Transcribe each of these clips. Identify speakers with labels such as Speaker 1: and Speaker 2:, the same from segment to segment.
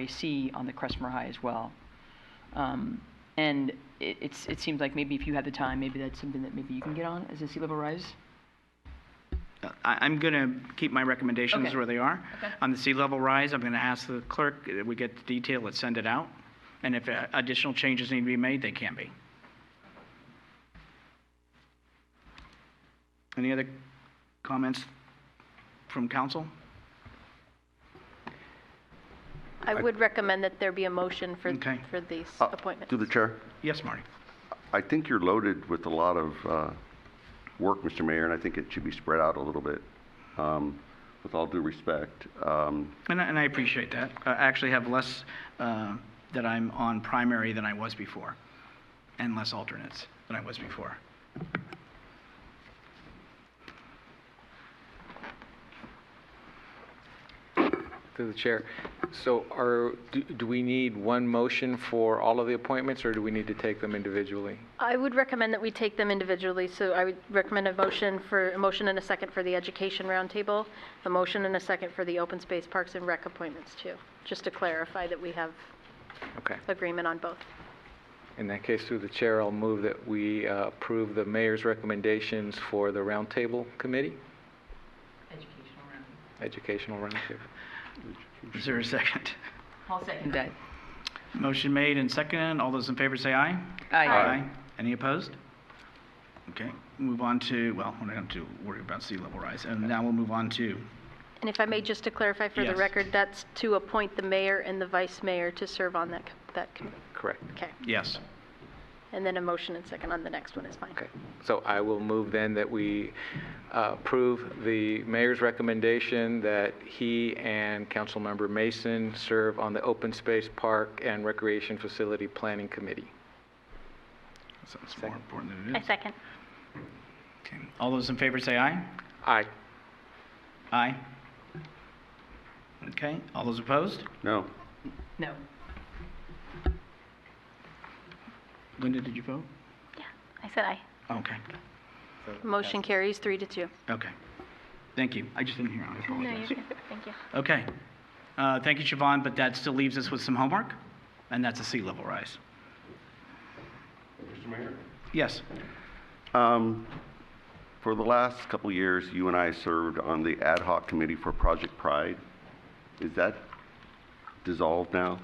Speaker 1: RAC on the Crestmore High as well. Um, And it, it's, it seems like maybe if you had the time, maybe that's something that maybe you can get on as a sea level rise.
Speaker 2: I, I'm going to keep my recommendations
Speaker 1: Okay.
Speaker 2: where they are.
Speaker 1: Okay.
Speaker 2: On the sea level rise, I'm going to ask the clerk, uh, we get the detail, let's send it out. And if uh, additional changes need to be made, they can be. Any other comments from council?
Speaker 3: I would recommend that there be a motion for,
Speaker 2: Okay.
Speaker 3: for these
Speaker 4: Uh,
Speaker 3: appointments.
Speaker 4: Through the chair,
Speaker 2: Yes, Marty?
Speaker 4: I think you're loaded with a lot of uh, work, Mr. Mayor, and I think it should be spread out a little bit, um, with all due respect. Um,
Speaker 2: And I, and I appreciate that. I actually have less uh, that I'm on primary than I was before, and less alternates than I was before.
Speaker 5: Through the chair. So are, do- do we need one motion for all of the appointments, or do we need to take them individually?
Speaker 3: I would recommend that we take them individually, so I would recommend a motion for, a motion and a second for the education roundtable, a motion and a second for the open space parks and rec appointments too, just to clarify that we have
Speaker 5: Okay.
Speaker 3: agreement on both.
Speaker 5: In that case, through the chair, I'll move that we uh, approve the mayor's recommendations for the roundtable committee,
Speaker 1: Educational round.
Speaker 5: educational roundtable.
Speaker 2: Is there a second?
Speaker 1: I'll second that.
Speaker 2: Motion made and seconded. All those in favor say aye.
Speaker 1: Aye.
Speaker 2: Any opposed? Okay, move on to, well, we're not going to worry about sea level rise. And now we'll move on to,
Speaker 3: And if I may, just to clarify for the
Speaker 2: Yes.
Speaker 3: record, that's to appoint the mayor and the vice mayor to serve on that, co- that committee.
Speaker 5: Correct.
Speaker 3: Okay,
Speaker 2: yes.
Speaker 3: and then a motion and second on the next one is fine.
Speaker 5: Okay. So I will move then that we uh, approve the mayor's recommendation that he and Councilmember Mason serve on the Open Space Park and Recreation Facility Planning Committee.
Speaker 2: That Sounds more important than
Speaker 3: I
Speaker 2: it is.
Speaker 3: second.
Speaker 2: Okay. All those in favor say aye.
Speaker 5: Aye.
Speaker 2: Aye. Okay, all those opposed?
Speaker 4: No,
Speaker 1: No.
Speaker 2: Linda, did you vote?
Speaker 3: Yeah, I said aye.
Speaker 2: Okay,
Speaker 3: Motion carries three to two.
Speaker 2: okay. Thank you. I just didn't hear. I apologize.
Speaker 3: Thank you.
Speaker 2: Okay. Uh, Thank you, Siobhan, but that still leaves us with some homework, and that's a sea level rise.
Speaker 4: Mr. Mayor?
Speaker 2: Yes.
Speaker 4: Um, For the last couple of years, you and I served on the ad hoc committee for Project Pride. Is that dissolved now?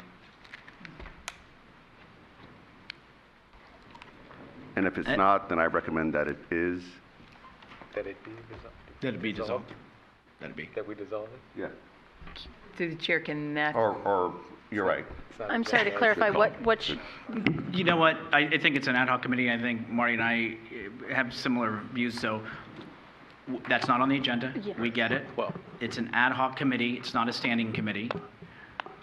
Speaker 4: And if it's
Speaker 2: Uh,
Speaker 4: not, then I recommend that it is.
Speaker 5: That it be dissolved?
Speaker 2: That'd be dissolved. That'd be.
Speaker 5: That we dissolve it?
Speaker 4: Yeah.
Speaker 1: Through the chair, can that,
Speaker 4: Or, or, you're right.
Speaker 5: It's not
Speaker 3: I'm sorry to
Speaker 5: dissolved.
Speaker 3: clarify, what, what, sh-
Speaker 2: You know what? I, I think it's an ad hoc committee. I think Marty and I eh, have similar views, so w- that's not on the agenda.
Speaker 3: Yeah.
Speaker 2: We get it.
Speaker 5: Well-
Speaker 2: It's an ad hoc committee. It's not a standing committee.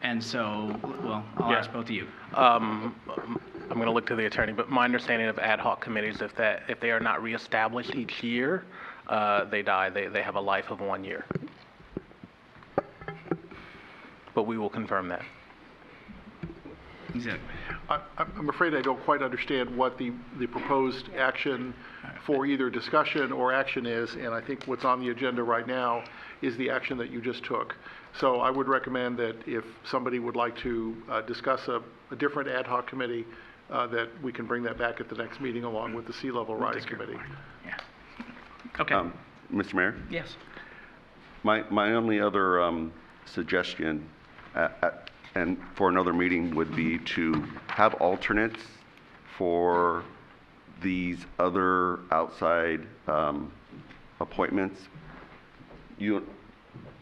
Speaker 2: And so, well, I'll
Speaker 6: Yeah.
Speaker 2: ask both of you.
Speaker 6: Um, I'm going to look to the attorney, but my understanding of ad hoc committees, if that, if they are not reestablished each year, uh, they die, they, they have a life of one year. But we will confirm that.
Speaker 2: Is it-
Speaker 7: I- I'm I'm afraid I don't quite understand what the, the proposed action for either discussion or action is, and I think what's on the agenda right now is the action that you just took. So I would recommend that if somebody would like to uh, discuss a, a different ad hoc committee, uh, that we can bring that back at the next meeting along with the sea level rise committee.
Speaker 2: Yeah. Okay.
Speaker 4: Um, Mr. Mayor?
Speaker 2: Yes.
Speaker 4: My, my only other um, suggestion, uh, uh, and for another meeting, would be to have alternates for these other outside um, appointments. You,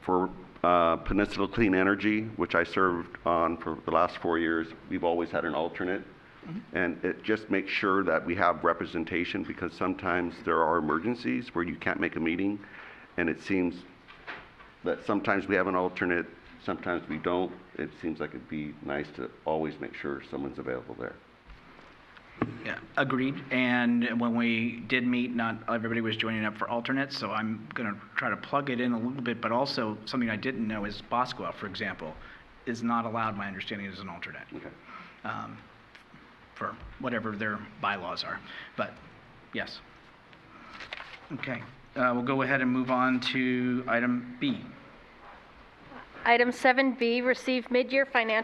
Speaker 4: for uh, Peninsula Clean Energy, which I served on for the last four years, we've always had an alternate. And it just makes sure that we have representation, because sometimes there are emergencies where you can't make a meeting, and it seems that sometimes we have an alternate, sometimes we don't. It seems like it'd be nice to always make sure someone's available there.
Speaker 2: Yeah, agreed. And when we did meet, not everybody was joining up for alternates, so I'm going to try to plug it in a little bit, but also something I didn't know is Bosqua, for example, is not allowed, my understanding, as an alternate
Speaker 4: Okay.
Speaker 2: um, for whatever their bylaws are. But, yes. Okay, uh, we'll go ahead and move on to item B.
Speaker 3: item 7B, receive mid-year financial